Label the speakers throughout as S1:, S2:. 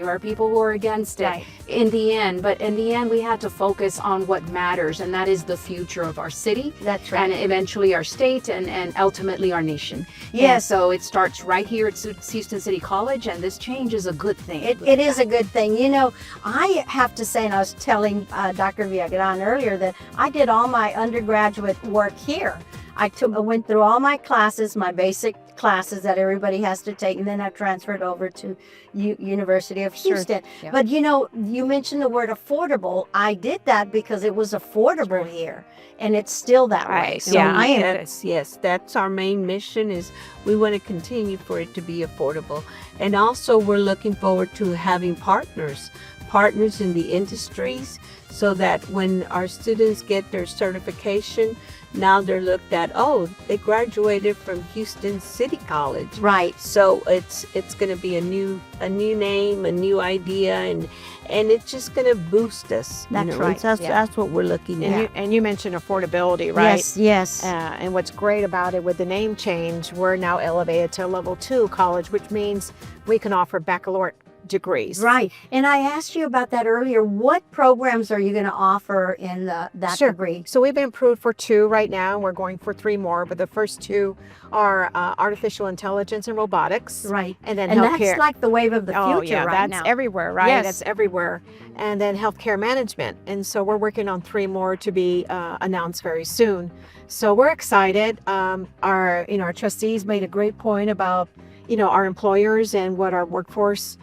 S1: There are people who are against it
S2: Right.
S1: in the end, but in the end, we had to focus on what matters, and that is the future of our city.
S2: That's right.
S1: And eventually our state and, and ultimately our nation.
S2: Yeah.
S1: And so it starts right here at Su- Houston City College, and this change is a good thing.
S2: It, it is a good thing. You know, I have to say, and I was telling uh, Dr. Villagrán earlier that I did all my undergraduate work here. I took, I went through all my classes, my basic classes that everybody has to take, and then I transferred over to U- University of
S1: Sure.
S2: Houston.
S1: Yeah.
S2: But you know, you mentioned the word affordable. I did that because it was affordable here, and it's still that way.
S3: Right.
S2: So
S3: yeah.
S2: I am
S3: Yes. Yes. That's our main mission. Is we want to continue for it to be affordable, and also we're looking forward to having partners, partners in the industries, so that when our students get their certification, now they're looked at. Oh, they graduated from Houston City College.
S2: right.
S3: So it's it's going to be a new a new name, a new idea, and and it's just going to boost us.
S2: That's
S3: you know,
S2: right,
S3: That's,
S1: yeah.
S3: that's what we're looking at.
S4: And, you, and you mentioned affordability, right?
S2: Yes. Yes.
S4: Uh, and what's great about it with the name change, we're now elevated to a level two college, which means we can offer baccalaureate degrees.
S2: Right. And I asked you about that earlier. What programs are you going to offer in the, that
S4: Sure.
S2: degree?
S4: So we've been approved for two right now, and we're going for three more. But the first two are uh, artificial intelligence and robotics,
S2: Right.
S4: and then
S2: And,
S4: healthcare.
S2: that's like the wave of the future
S4: oh yeah,
S2: right
S4: that's
S2: now.
S4: everywhere, right?
S2: Yes.
S4: That's everywhere. And then healthcare management. And so we're working on three more to be uh, announced very soon. So we're excited. Um, our you know our trustees made a great point about you know our employers and what our workforce.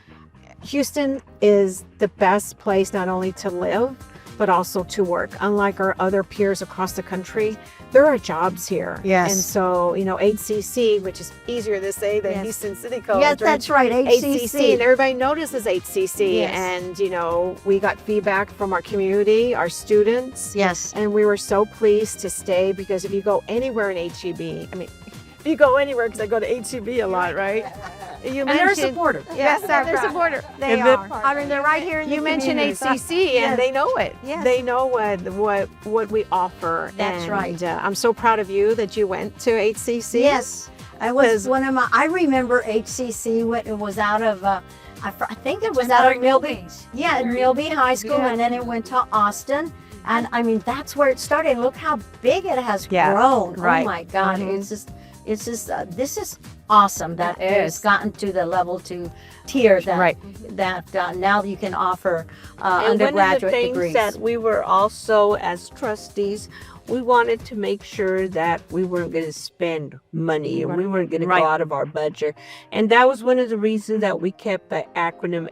S4: Houston is the best place not only to live but also to work. Unlike our other peers across the country, there are jobs here.
S2: Yes.
S4: And so you know HCC, which is easier to say than
S2: Yes.
S4: Houston City College.
S2: yes,
S4: or
S2: that's right. HCC.
S4: HCC, and everybody notices HCC.
S2: Yes.
S4: And you know, we got feedback from our community, our students,
S2: Yes.
S4: and we were so pleased to stay because if you go anywhere in HEB, I mean, if you go anywhere because I go to HEB a lot, right? You
S1: and they're
S4: mentioned
S1: supportive.
S4: yes,
S2: Yeah,
S4: there's
S2: right.
S4: a border. They
S2: They
S4: are.
S2: are. I mean, they're right here in
S4: You
S2: the
S4: mentioned
S2: community.
S4: HCC,
S2: Yes.
S4: and they know it.
S2: Yes.
S4: They know what what what we offer.
S2: That's
S4: and,
S2: right.
S4: Uh, I'm so proud of you that you went to HCC.
S2: Yes. I was
S4: Because-
S2: one of my, I remember HCC when it was out of, uh, I, fr- I think it was out of Milby. Yeah, at Milby High School,
S4: Yeah.
S2: and then it went to Austin. And I mean, that's where it started. Look how big it has
S4: Yeah,
S2: grown. Oh
S4: right.
S2: my God,
S4: Mhm.
S2: it's just, it's just, uh, this is awesome that
S1: It
S2: it's
S1: is.
S2: gotten to the level two tier that
S4: Right.
S2: that uh, now you can offer uh,
S3: and one of the
S2: undergraduate
S3: things
S2: degrees.
S3: that we were also as trustees we wanted to make sure that we weren't going to spend money and we weren't going to
S4: Right.
S3: go out of our budget and that was one of the reasons that we kept the acronym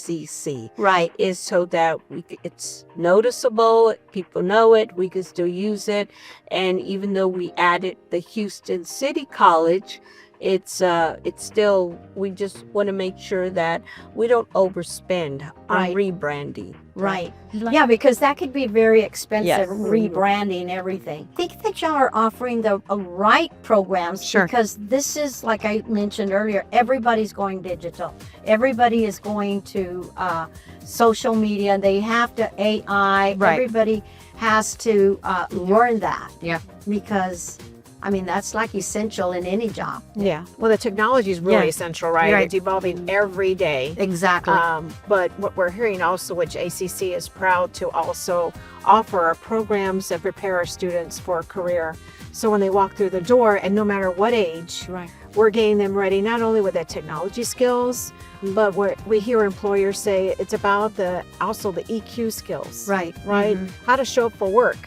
S3: hcc
S2: right.
S3: is so that we, c- it's noticeable people know it we can still use it and even though we added the houston city college it's uh it's still we just want to make sure that we don't overspend
S2: Right.
S3: on rebranding
S2: Right. yeah, because that could be very expensive
S4: Yes.
S2: rebranding everything. I think that y'all are offering the uh, right programs
S4: Sure.
S2: because this is, like I mentioned earlier, everybody's going digital. Everybody is going to uh, social media. They have to AI.
S4: Right. Mm-hmm.
S2: Everybody has to uh, learn that.
S1: Yeah.
S2: Because, I mean, that's like essential in any job.
S4: Yeah. Well, the technology is really
S2: Yeah.
S4: essential, right?
S2: Right.
S4: It's evolving every day.
S2: Exactly.
S4: Um, but what we're hearing also, which ACC is proud to also offer, are programs that prepare our students for a career. So when they walk through the door, and no matter what age,
S1: Right.
S4: we're getting them ready not only with the technology skills,
S2: Mm-hmm.
S4: but we're, we hear employers say it's about the also the EQ skills,
S2: right.
S4: Mm-hmm.
S2: Mm-hmm.
S4: Right? How to show up for work,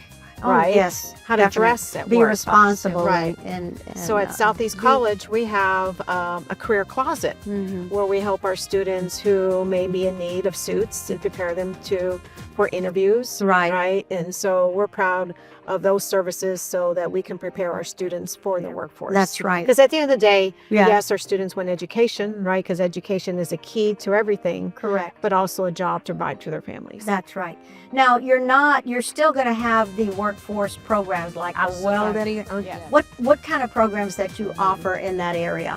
S2: Oh,
S4: right?
S2: yes.
S4: How to
S2: definitely.
S4: dress at
S2: Be
S4: work.
S2: responsible.
S4: Right.
S2: And, and
S4: So
S2: uh,
S4: at Southeast College, we have um, a career closet
S2: Mm-hmm.
S4: where we help our students who may be in need of suits and prepare them to for interviews.
S2: Right.
S4: Right. And so we're proud of those services so that we can prepare our students for the workforce.
S2: That's right.
S4: Because at the end of the day,
S2: Yeah.
S4: yes, our students want education, right? Because education is a key to everything,
S2: Correct.
S4: but also a job to provide to their families.
S2: That's right. Now you're not. You're still going to have the workforce programs like the welding.
S4: Oh,
S2: What what kind of programs that you offer in that area?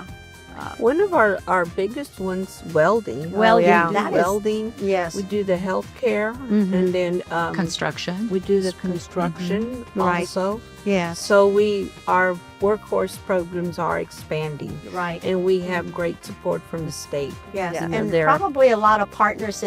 S3: Uh, one of our, our biggest ones, welding.
S2: Welding,
S3: We do
S2: that is-
S3: welding.
S2: Yes.
S3: We do the healthcare,
S4: Mhm.
S3: and then um,
S1: construction.
S3: we do the construction
S4: Right.
S3: also.
S4: Yes.
S3: So we our workhorse programs are expanding,
S2: Right.
S3: and we have great support from the state.
S2: Yes.
S3: Yeah.
S2: And
S3: They're-
S2: probably a lot of partners